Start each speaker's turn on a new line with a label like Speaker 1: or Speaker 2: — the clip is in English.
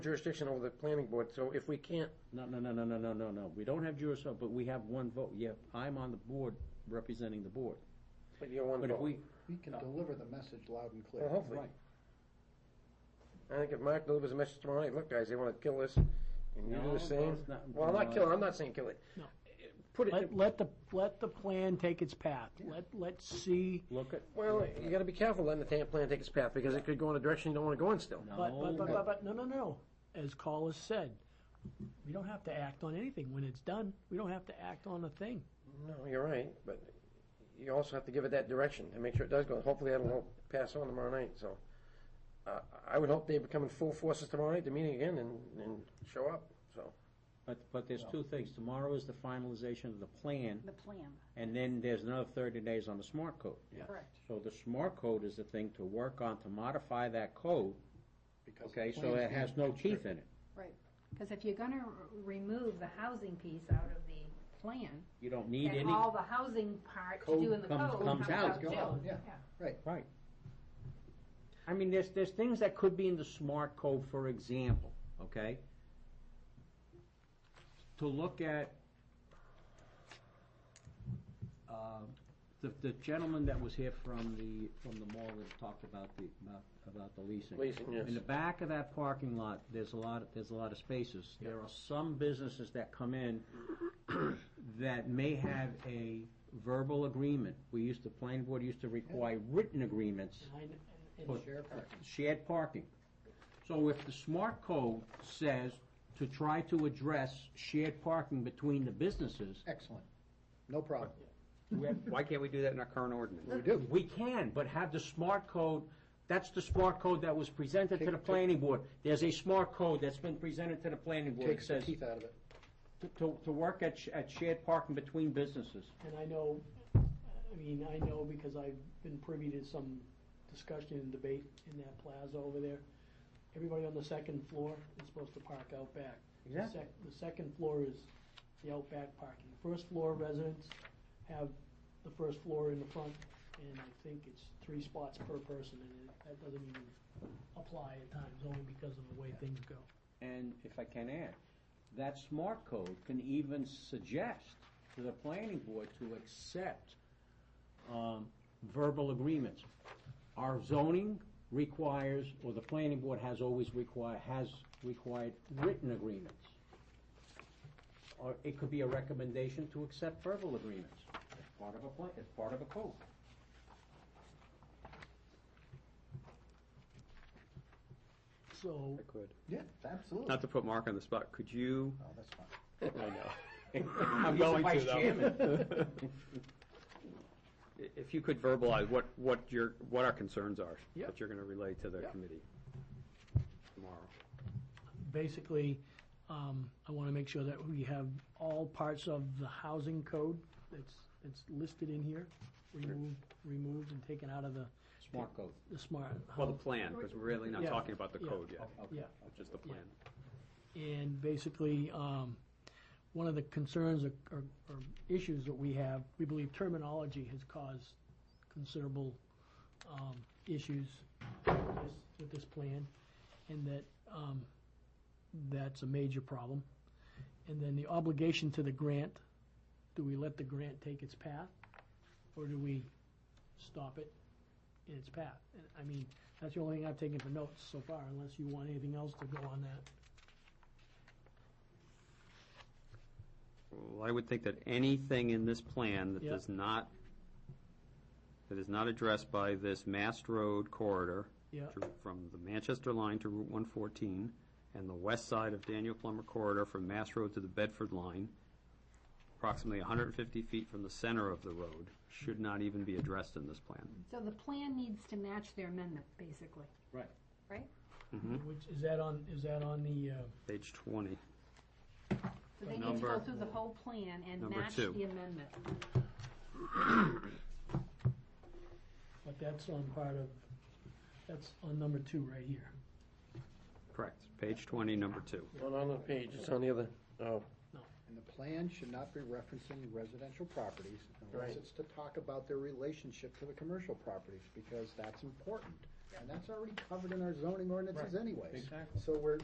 Speaker 1: jurisdiction over the planning board, so if we can't,
Speaker 2: No, no, no, no, no, no, no, no. We don't have jurisdiction, but we have one vote. Yeah, I'm on the board representing the board.
Speaker 1: but you're one
Speaker 2: But if
Speaker 1: vote.
Speaker 2: we,
Speaker 3: We can deliver the message loud and clear.
Speaker 1: Well, hopefully.
Speaker 2: right,
Speaker 1: I think if Mark delivers a message tomorrow night, look, guys, they wanna kill us, and you do
Speaker 2: No,
Speaker 1: the same.
Speaker 2: that's not-
Speaker 1: Well, I'm not
Speaker 2: no.
Speaker 1: killing, I'm not saying kill it.
Speaker 4: No.
Speaker 1: Put it,
Speaker 4: Let, let the, let the plan take its path. Let, let's see,
Speaker 2: look at,
Speaker 1: well, you gotta be careful letting the ta- plan take its path, because it could go in a direction you don't wanna go in still.
Speaker 4: but, but, but,
Speaker 2: no,
Speaker 4: but, but, no, no, no. As Carl has said, we don't have to act on anything. When it's done, we don't have to act on a thing.
Speaker 1: No, you're right, but you also have to give it that direction and make sure it does go. Hopefully that'll help pass on tomorrow night, so. Uh, I would hope they become in full forces tomorrow night, the meeting again, and, and show up, so.
Speaker 2: but, but there's two things. Tomorrow is the finalization of the plan,
Speaker 5: The plan,
Speaker 2: and then there's another thirty days on the smart code.
Speaker 5: correct.
Speaker 2: So the smart code is the thing to work on to modify that code,
Speaker 3: because
Speaker 2: okay,
Speaker 3: the
Speaker 2: so
Speaker 3: plan's
Speaker 2: it has no
Speaker 3: being
Speaker 2: teeth
Speaker 3: constricted.
Speaker 2: in it.
Speaker 5: Right. Because if you're gonna r- remove the housing piece out of the plan,
Speaker 2: You don't need
Speaker 5: then
Speaker 2: any,
Speaker 5: all the housing part to do in the
Speaker 2: Code comes-
Speaker 5: code
Speaker 2: comes
Speaker 5: comes out
Speaker 2: out.
Speaker 5: too.
Speaker 3: Gone, yeah.
Speaker 2: right. I mean, there's, there's things that could be in the smart code, for example, okay? To look at, uh, the, the gentleman that was here from the, from the mall that talked about the, about, about the leasing.
Speaker 1: Leasing, yes.
Speaker 2: In the back of that parking lot, there's a lot, there's a lot of spaces. There are some businesses that come in that may have a verbal agreement. We used to, planning board used to require written agreements
Speaker 4: And- and-
Speaker 2: for
Speaker 4: and-
Speaker 3: Share parking.
Speaker 2: shared parking. So if the smart code says to try to address shared parking between the businesses,
Speaker 3: Excellent. No problem.
Speaker 6: Why can't we do that in our current ordinance?
Speaker 3: We do.
Speaker 2: we can, but have the smart code, that's the smart code that was presented to the planning board. There's a smart code that's been presented to the planning board that
Speaker 3: Takes the
Speaker 2: says
Speaker 3: teeth out of it.
Speaker 2: to, to- to work at, sh- at shared parking between businesses.
Speaker 4: And I know, I mean, I know because I've been privy to some discussion and debate in that plaza over there. Everybody on the second floor is supposed to park out back. The
Speaker 2: Exactly.
Speaker 4: sec- The second floor is the out back parking. First floor residents have the first floor in the front, and I think it's three spots per person, and it- that doesn't even apply at times, only because of the way things go.
Speaker 2: And if I can add, that smart code can even suggest to the planning board to accept um, verbal agreements. Our zoning requires, or the planning board has always required, has required written agreements. Or it could be a recommendation to accept verbal agreements as part of a plan, as part of a code.
Speaker 4: So,
Speaker 6: could.
Speaker 3: Yeah, absolutely.
Speaker 6: Not to put Mark on the spot, could you?
Speaker 3: No, that's fine.
Speaker 6: I know.
Speaker 2: I'm
Speaker 6: going to, though. If you could verbalize what, what your, what our concerns are, that you're gonna relay to the committee tomorrow.
Speaker 4: basically, um, I want to make sure that we have all parts of the housing code that's, that's listed in here, removed, removed and taken out of the,
Speaker 2: Smart code.
Speaker 4: the smart.
Speaker 6: Well, the plan, because we're really not
Speaker 4: Yeah.
Speaker 6: talking about the
Speaker 4: Yeah.
Speaker 6: code yet,
Speaker 2: Okay.
Speaker 4: Yeah,
Speaker 6: just the
Speaker 4: Yeah.
Speaker 6: plan.
Speaker 4: and basically, um, one of the concerns or, or, or issues that we have, we believe terminology has caused considerable, um, issues with this, with this plan, and that, um, that's a major problem. And then the obligation to the grant, do we let the grant take its path, or do we stop it in its path? And, I mean, that's the only thing I've taken for notes so far, unless you want anything else to go on that.
Speaker 6: Well, I would think that anything in this plan that
Speaker 4: Yeah.
Speaker 6: does not, that is not addressed by this Mast Road corridor,
Speaker 4: Yeah.
Speaker 6: to- from the Manchester line to Route 114, and the west side of Daniel Plummer corridor from Mass Road to the Bedford line, approximately 150 feet from the center of the road, should not even be addressed in this plan.
Speaker 5: So the plan needs to match their amendment, basically.
Speaker 2: Right.
Speaker 5: Right?
Speaker 4: Which, is that on, is that on the, uh,
Speaker 6: Page 20.
Speaker 5: So they need to go
Speaker 6: Number-
Speaker 5: through the whole plan and
Speaker 6: Number
Speaker 5: match the
Speaker 6: two.
Speaker 5: amendment.
Speaker 4: but that's on part of, that's on number two right here.
Speaker 6: Correct. Page 20, number two.
Speaker 1: Not on the page, it's on the other, oh,
Speaker 3: And the plan should not be referencing residential properties unless
Speaker 1: Right.
Speaker 3: it's to talk about their relationship to the commercial properties, because that's important. And that's already covered in our zoning ordinances anyways.
Speaker 2: Exactly.
Speaker 3: So we're,